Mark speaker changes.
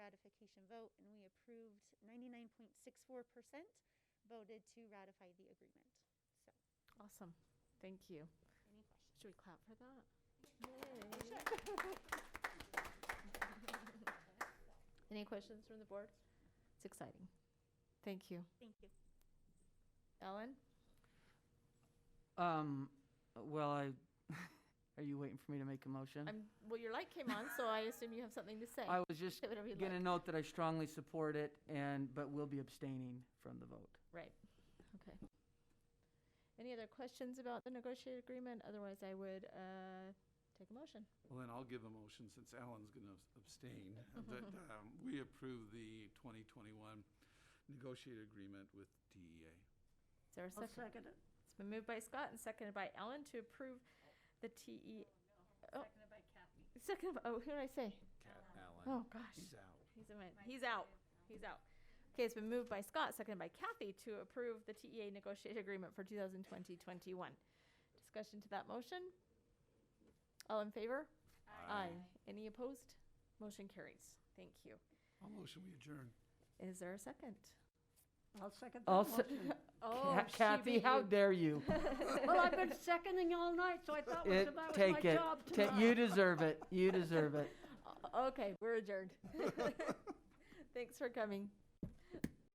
Speaker 1: vote, and we approved 99.64% voted to ratify the agreement. So,
Speaker 2: Awesome. Thank you.
Speaker 1: any questions?
Speaker 2: Should we clap for that? Any questions from the board? It's exciting. Thank you.
Speaker 1: Thank you.
Speaker 2: Ellen?
Speaker 3: Um, well, I, are you waiting for me to make a motion?
Speaker 2: I'm, well, your light came on, so I assume you have something to say.
Speaker 3: I was just
Speaker 2: Say whatever you'd
Speaker 3: gonna
Speaker 2: like.
Speaker 3: note that I strongly support it and, but will be abstaining from the vote.
Speaker 2: Right. Okay. Any other questions about the negotiated agreement? Otherwise, I would uh, take a motion.
Speaker 4: Well, then I'll give a motion, since Alan's going to abstain, that um, we approve the 2021 negotiated agreement with E DEA.
Speaker 2: Is there a 2nd second it. has been moved by Scott and seconded by Ellen to approve the TE. Seconded by Kathy. Seconded, by- oh, who did I say?
Speaker 4: Alan.
Speaker 2: Oh, gosh.
Speaker 4: He's out.
Speaker 2: He's a man. He's out. He's out. Okay, it's been moved by Scott, seconded by Kathy to approve the TEA negotiated agreement for 2020-21. Discussion to that motion? All in favor? Aye. Any opposed? Motion carries. Thank you.
Speaker 4: I'll motion we adjourn.
Speaker 2: Is there a second?
Speaker 5: I'll second that
Speaker 3: Also,
Speaker 5: motion.
Speaker 2: Oh, she
Speaker 3: Kathy,
Speaker 2: beat
Speaker 3: how
Speaker 2: you.
Speaker 3: dare you?
Speaker 5: Well, I've been seconding all night, so I thought it was
Speaker 3: It,
Speaker 5: about my
Speaker 3: take it.
Speaker 5: job
Speaker 3: Ta- You
Speaker 5: tomorrow.
Speaker 3: deserve it. You deserve it.
Speaker 2: Okay, we're adjourned. Thanks for coming.